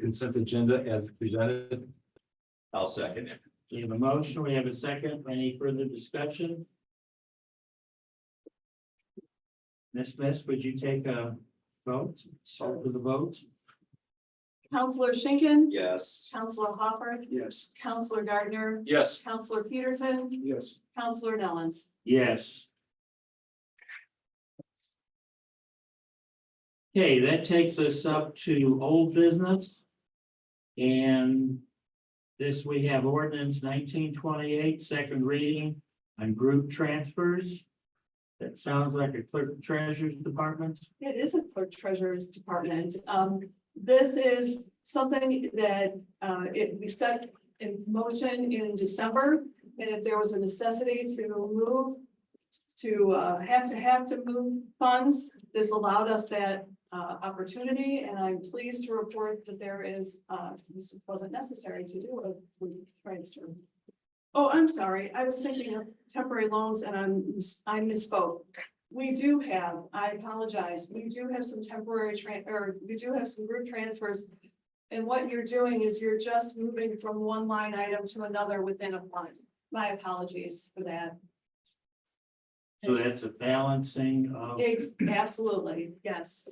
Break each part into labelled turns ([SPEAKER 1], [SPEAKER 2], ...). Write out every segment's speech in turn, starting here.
[SPEAKER 1] consent agenda as presented. I'll second it.
[SPEAKER 2] We have a motion, we have a second, any further discussion? Ms. Miss, would you take a vote, start with a vote?
[SPEAKER 3] Counselor Schinkin.
[SPEAKER 1] Yes.
[SPEAKER 3] Counselor Hopper.
[SPEAKER 1] Yes.
[SPEAKER 3] Counselor Gardner.
[SPEAKER 1] Yes.
[SPEAKER 3] Counselor Peterson.
[SPEAKER 1] Yes.
[SPEAKER 3] Counselor Nellens.
[SPEAKER 2] Yes. Okay, that takes us up to old business. And this, we have ordinance nineteen twenty-eight, second reading on group transfers. That sounds like a clerk and treasurer's department.
[SPEAKER 3] It is a clerk treasurer's department. Um, this is something that, uh, it, we set in motion in December. And if there was a necessity to move, to, uh, have to have to move funds, this allowed us that, uh, opportunity. And I'm pleased to report that there is, uh, this wasn't necessary to do a transfer. Oh, I'm sorry. I was thinking of temporary loans and I'm, I misspoke. We do have, I apologize, we do have some temporary tran, or we do have some group transfers. And what you're doing is you're just moving from one line item to another within a fund. My apologies for that.
[SPEAKER 2] So that's a balancing of
[SPEAKER 3] Ex- Absolutely, yes.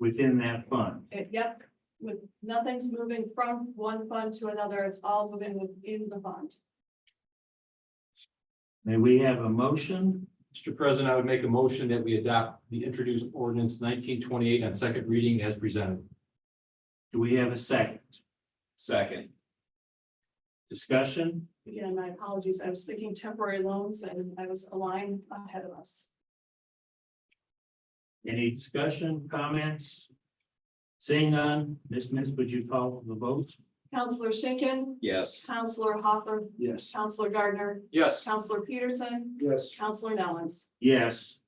[SPEAKER 2] within that fund.
[SPEAKER 3] It- Yep, with, nothing's moving from one fund to another. It's all moving within the fund.
[SPEAKER 2] May we have a motion?
[SPEAKER 1] Mr. President, I would make a motion that we adopt the introduced ordinance nineteen twenty-eight on second reading as presented.
[SPEAKER 2] Do we have a second?
[SPEAKER 1] Second.
[SPEAKER 2] Discussion?
[SPEAKER 3] Again, my apologies. I was thinking temporary loans and I was a line ahead of us.
[SPEAKER 2] Any discussion, comments? Seeing none, Ms. Miss, would you call the vote?
[SPEAKER 3] Counselor Schinkin,
[SPEAKER 1] Yes.
[SPEAKER 3] Counselor Hopper,
[SPEAKER 1] Yes.
[SPEAKER 3] Counselor Gardner,
[SPEAKER 1] Yes.
[SPEAKER 3] Counselor Peterson,
[SPEAKER 1] Yes.
[SPEAKER 3] Counselor Nellens.
[SPEAKER 2] Yes.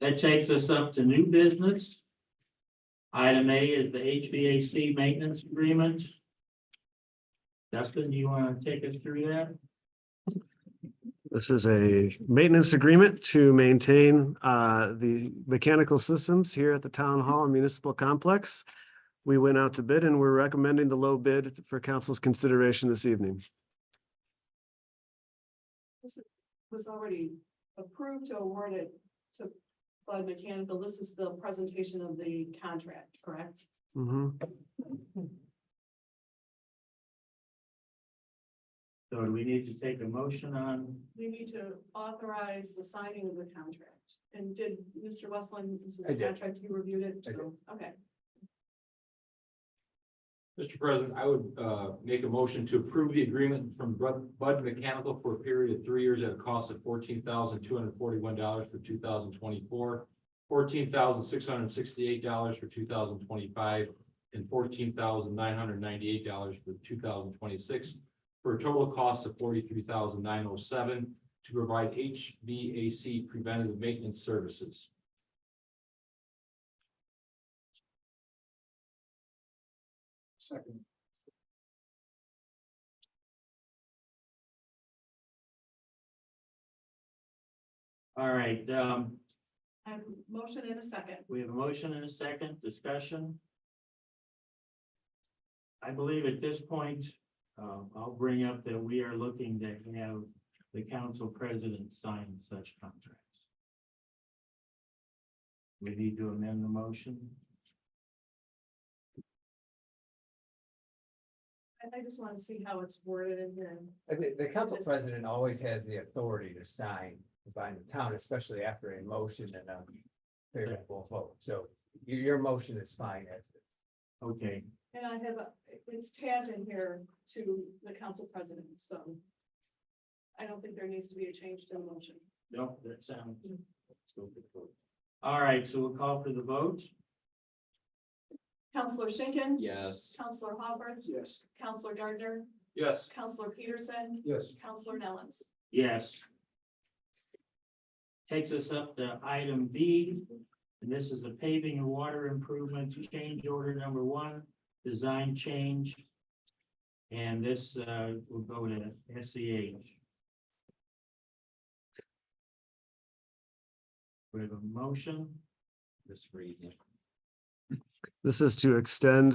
[SPEAKER 2] That takes us up to new business. Item A is the HVAC maintenance agreement. Dustin, do you want to take us through that?
[SPEAKER 4] This is a maintenance agreement to maintain uh, the mechanical systems here at the Town Hall and Municipal Complex. We went out to bid and we're recommending the low bid for council's consideration this evening.
[SPEAKER 3] Was already approved to award it to Bud Mechanical. This is the presentation of the contract, correct?
[SPEAKER 4] Mhm.
[SPEAKER 2] So do we need to take a motion on?
[SPEAKER 3] We need to authorize the signing of the contract. And did Mr. Westland, this is
[SPEAKER 1] I
[SPEAKER 3] the
[SPEAKER 1] did.
[SPEAKER 3] contract, you reviewed it,
[SPEAKER 1] I
[SPEAKER 3] so, okay.
[SPEAKER 1] Mr. President, I would uh make a motion to approve the agreement from Bud Bud Mechanical for a period of three years at a cost of fourteen thousand two hundred forty-one dollars for two thousand twenty-four, fourteen thousand six hundred sixty-eight dollars for two thousand twenty-five, and fourteen thousand nine hundred ninety-eight dollars for two thousand twenty-six, for a total cost of forty-three thousand nine hundred seven dollars to provide HVAC preventative maintenance services.
[SPEAKER 2] Second. All right, um,
[SPEAKER 3] I have a motion in a second.
[SPEAKER 2] we have a motion and a second discussion. I believe at this point, uh, I'll bring up that we are looking to have the council president sign such contracts. We need to amend the motion.
[SPEAKER 3] I, I just want to see how it's worded in here.
[SPEAKER 5] I think the council
[SPEAKER 3] Just-
[SPEAKER 5] president always has the authority to sign by the town, especially after a motion and a favorable vote. So your, your motion is fine as it.
[SPEAKER 2] Okay,
[SPEAKER 3] And I have, a- it's tabbed in here to the council president, so I don't think there needs to be a change to the motion.
[SPEAKER 2] no, that sounds. All right, so we'll call for the vote.
[SPEAKER 3] Counselor Schinkin.
[SPEAKER 1] Yes.
[SPEAKER 3] Counselor Hopper,
[SPEAKER 1] Yes.
[SPEAKER 3] Counselor Gardner,
[SPEAKER 1] Yes.
[SPEAKER 3] Counselor Peterson,
[SPEAKER 1] Yes.
[SPEAKER 3] Counselor Nellens.
[SPEAKER 2] Yes. Takes us up to item B, and this is the paving and water improvements change order number one, design change. And this uh will go to SEH. We have a motion,
[SPEAKER 1] Ms. Reed.
[SPEAKER 4] This is to extend